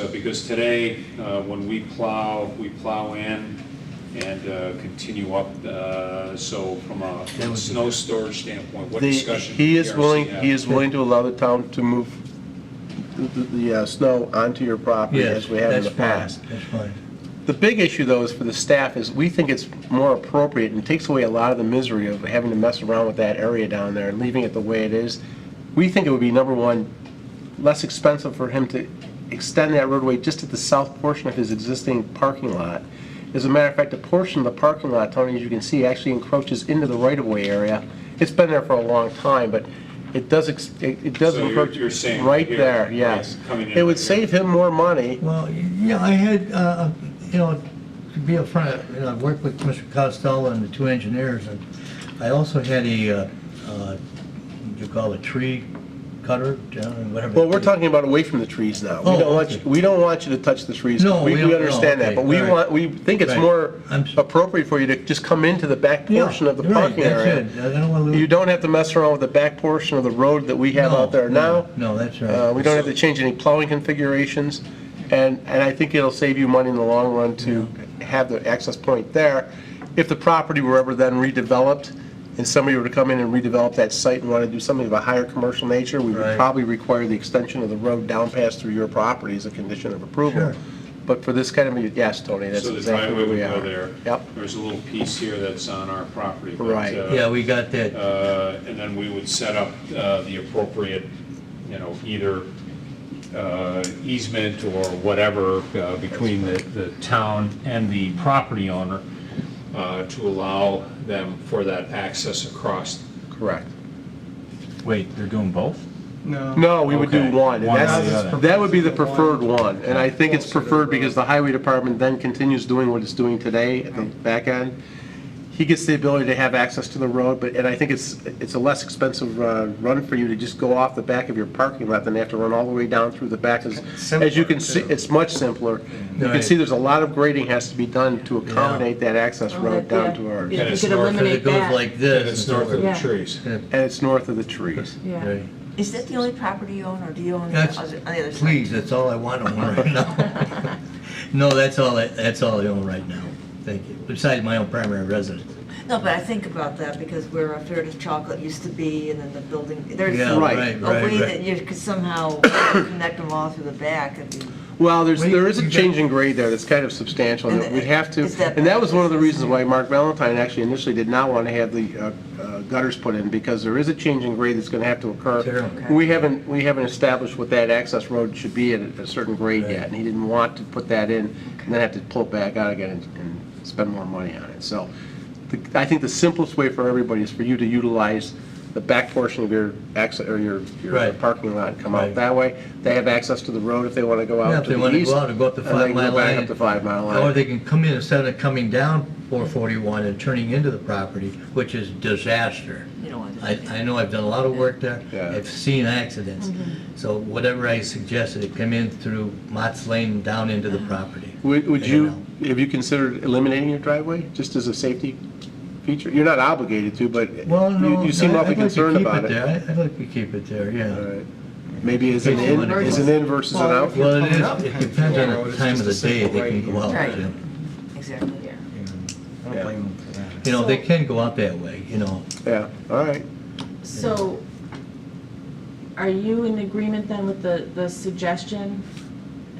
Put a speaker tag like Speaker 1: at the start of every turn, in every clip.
Speaker 1: Uh, Because today, uh, when we plow, we plow in and uh, continue up, uh, so from a
Speaker 2: That
Speaker 1: from
Speaker 2: would
Speaker 1: a
Speaker 2: be-
Speaker 1: snow storage standpoint, what
Speaker 3: The-
Speaker 1: discussion?
Speaker 3: He is
Speaker 1: PRC
Speaker 3: willing,
Speaker 1: have?
Speaker 3: he is willing to allow the town to move the- the, the uh, snow onto your property
Speaker 2: Yes,
Speaker 3: as we have in
Speaker 2: that's
Speaker 3: the
Speaker 2: fine,
Speaker 3: past.
Speaker 2: That's fine.
Speaker 3: The big issue, though, is for the staff, is we think it's more appropriate and takes away a lot of the misery of having to mess around with that area down there and leaving it the way it is. We think it would be, number one, less expensive for him to extend that roadway just at the south portion of his existing parking lot. As a matter of fact, a portion of the parking lot, Tony, as you can see, actually encroaches into the right-of-way area. It's been there for a long time, but it does, ex- it it does
Speaker 1: So you're-
Speaker 3: encroach
Speaker 1: you're saying
Speaker 3: right
Speaker 1: here,
Speaker 3: there,
Speaker 1: right,
Speaker 3: yes.
Speaker 1: coming in
Speaker 3: It would
Speaker 1: right here.
Speaker 3: save him more money.
Speaker 2: Well, yeah, I had, uh, you know, to be upfront, you know, I've worked with Mr. Costello and the two engineers, and I also had a, uh, uh, what do you call it, tree cutter, uh, whatever.
Speaker 3: Well, we're talking about away from the trees now. We
Speaker 2: Oh,
Speaker 3: don't want,
Speaker 2: okay.
Speaker 3: you- we don't want you to touch the trees.
Speaker 2: No, we don't-
Speaker 3: We
Speaker 2: no,
Speaker 3: understand that,
Speaker 2: okay,
Speaker 3: but we
Speaker 2: all right.
Speaker 3: want, we think it's
Speaker 2: Right.
Speaker 3: more
Speaker 2: I'm s-
Speaker 3: appropriate for you to just come into the back
Speaker 2: Yeah,
Speaker 3: portion of the
Speaker 2: you're right,
Speaker 3: parking area.
Speaker 2: That's it, I don't want to.
Speaker 3: You don't have to mess around with the back portion of the road that we have out there now.
Speaker 2: No, that's
Speaker 3: Uh,
Speaker 2: right.
Speaker 3: We don't have to change any plowing configurations, and, and I think it'll save you money in the long run to have the access point there. If the property were ever then redeveloped, and somebody were to come in and redevelop that site and want to do something of a higher commercial nature, we would
Speaker 2: Right.
Speaker 3: probably require the extension of the road down past through your property as a condition of approval.
Speaker 2: Sure.
Speaker 3: But for this kind of, a yes, Tony, that's
Speaker 1: So the
Speaker 3: exactly
Speaker 1: driveway
Speaker 3: where
Speaker 1: would
Speaker 3: we
Speaker 1: go
Speaker 3: are.
Speaker 1: there.
Speaker 3: Yep,
Speaker 1: There's a little piece here that's on our property. but,
Speaker 3: Right.
Speaker 1: uh,
Speaker 2: Yeah, we got that,
Speaker 1: uh, And then we would set up uh, the appropriate, you know, either uh, easement or whatever uh, between the, the town and the property owner uh, to allow them for that access across.
Speaker 3: correct.
Speaker 4: Wait, they're doing both?
Speaker 5: No.
Speaker 3: No, we would do
Speaker 4: Okay.
Speaker 3: one, and
Speaker 4: One or
Speaker 5: the
Speaker 3: that's,
Speaker 5: other.
Speaker 3: that would be the preferred one, and I think it's
Speaker 5: Closer to the
Speaker 3: preferred
Speaker 5: road.
Speaker 3: because the highway department then continues doing what it's doing today at the back end. He gets the ability to have access to the road, but, and I think it's, it's a less expensive uh, run for you to just go off the back of your parking lot than have to run all the way down through the back, as, as you can see,
Speaker 5: Simpler, too.
Speaker 3: it's much simpler. You can
Speaker 2: Right.
Speaker 3: see there's a lot of grading has to be done to accommodate that access
Speaker 6: Oh,
Speaker 3: road
Speaker 6: that- yeah.
Speaker 3: down to our,
Speaker 6: Yeah,
Speaker 1: And
Speaker 6: if you
Speaker 1: it's
Speaker 6: could
Speaker 1: north,
Speaker 2: because
Speaker 6: eliminate
Speaker 2: it goes
Speaker 6: that.
Speaker 2: like
Speaker 1: And
Speaker 2: this.
Speaker 1: it's north of the
Speaker 6: Yeah.
Speaker 1: trees.
Speaker 3: and it's north of the trees.
Speaker 6: Yeah.
Speaker 2: Right.
Speaker 7: Is that the only property you own, or do you own the
Speaker 2: That's,
Speaker 7: other, on the other side?
Speaker 2: please, that's all I want to own right now. No, that's all, I- that's all I own right now, thank you, besides my own primary residence.
Speaker 7: No, but I think about that because where a Fair to Chocolate used to be, and then the building, there's
Speaker 2: Yeah,
Speaker 7: a
Speaker 3: Right.
Speaker 2: right, right,
Speaker 7: way
Speaker 2: right.
Speaker 7: that you could somehow connect them all through the back. and be-
Speaker 3: Well, there's,
Speaker 2: Wait,
Speaker 3: there is a
Speaker 2: you got-
Speaker 3: change in grade there that's kind of substantial,
Speaker 7: And
Speaker 3: that we
Speaker 7: it-
Speaker 3: have to,
Speaker 7: is that-
Speaker 3: and that was one of the reasons why Mark Valentine actually initially did not want to have the uh, uh, gutters put in, because there is a change in grade that's going to have to
Speaker 2: Sure.
Speaker 3: occur.
Speaker 2: Okay.
Speaker 3: We haven't, we haven't established what that access road should be at a certain grade
Speaker 2: Right.
Speaker 3: yet, and he didn't want to put that in, and then have to pull it back out again and- and spend more money on it. So the- I think the simplest way for everybody is for you to utilize the back portion of your access, or your, your
Speaker 2: Right.
Speaker 3: parking lot, and come out
Speaker 2: Right.
Speaker 3: that way. They have access to the road if they want to go out
Speaker 2: Yeah, if they want to go out and go up the
Speaker 3: and then
Speaker 2: five mile
Speaker 3: go back
Speaker 2: line.
Speaker 3: up the five mile
Speaker 2: Or
Speaker 3: line.
Speaker 2: they can come in instead of coming down 441 and turning into the property, which is disaster.
Speaker 7: You don't want to-
Speaker 2: I, I know I've done a lot of work there.
Speaker 3: Yeah. Mm-hmm.
Speaker 2: I've seen accidents. So whatever I suggested, it come in through Mott's Lane down into the property.
Speaker 3: Uh-huh. Would, would
Speaker 2: I
Speaker 3: you,
Speaker 2: don't
Speaker 3: have you considered eliminating your driveway, just as a safety feature? You're not obligated to, but
Speaker 2: Well, no.
Speaker 3: you you seem
Speaker 2: I-
Speaker 3: awfully
Speaker 2: I'd like to
Speaker 3: concerned
Speaker 2: keep
Speaker 3: about
Speaker 2: there.
Speaker 3: it.
Speaker 2: I- I'd like to keep it there,
Speaker 3: All
Speaker 2: yeah.
Speaker 3: right. Maybe as an in, as an in versus an out?
Speaker 5: Well,
Speaker 2: Well, it
Speaker 5: coming up
Speaker 2: is, it
Speaker 5: kind of
Speaker 2: depends
Speaker 5: the
Speaker 2: on
Speaker 5: road,
Speaker 2: the
Speaker 5: it's
Speaker 2: time of the
Speaker 5: just a
Speaker 2: day
Speaker 5: simple
Speaker 2: they can
Speaker 5: right
Speaker 2: go out.
Speaker 7: Right.
Speaker 2: Jim.
Speaker 7: Exactly.
Speaker 5: I don't blame them for that.
Speaker 2: You know, they
Speaker 6: So-
Speaker 2: can go out that way, you know.
Speaker 3: Yeah, all right.
Speaker 6: So, are you in agreement then with the, the suggestion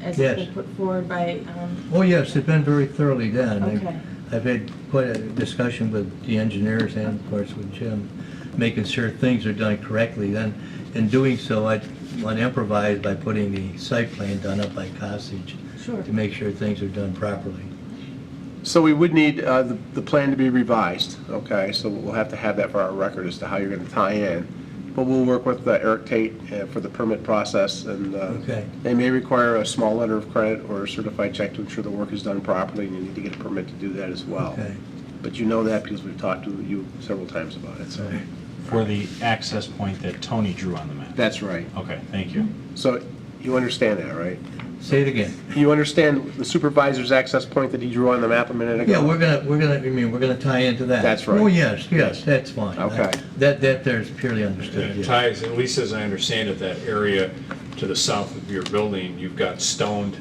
Speaker 6: as it's
Speaker 2: Yes.
Speaker 6: been put forward by, um,
Speaker 2: Oh, yes, it's been very thoroughly done. I've-
Speaker 6: Okay.
Speaker 2: I've had quite a discussion with the engineers and, of course, with Jim, making sure things are done correctly. Then, in doing so, I want to improvise by putting the site plan done up by Costage
Speaker 6: sure.
Speaker 2: to make sure things are done properly.
Speaker 3: So we would need uh, the, the plan to be revised, okay? So we'll have to have that for our record as to how you're going to tie in. But we'll work with uh, Eric Tate uh, for the permit process, and uh,
Speaker 2: Okay.
Speaker 3: they may require a small letter of credit or a certified check to ensure the work is done properly, and you need to get a permit to do that as well.
Speaker 2: Okay.
Speaker 3: But you know that because we've talked to you several times about it, so.
Speaker 4: For the access point that Tony drew on the map?
Speaker 3: That's right.
Speaker 4: Okay, thank you.
Speaker 3: So you understand that, right?
Speaker 2: Say it again.
Speaker 3: You understand the supervisor's access point that he drew on the map a minute ago?
Speaker 2: Yeah, we're gonna, we're gonna, I mean, we're gonna tie into that.
Speaker 3: That's right.
Speaker 2: Oh, yes, yes, that's fine.
Speaker 3: Okay.
Speaker 2: That, that there's purely understood,
Speaker 1: It
Speaker 2: yes.
Speaker 1: ties, at least as I understand it, that area to the south of your building, you've got stoned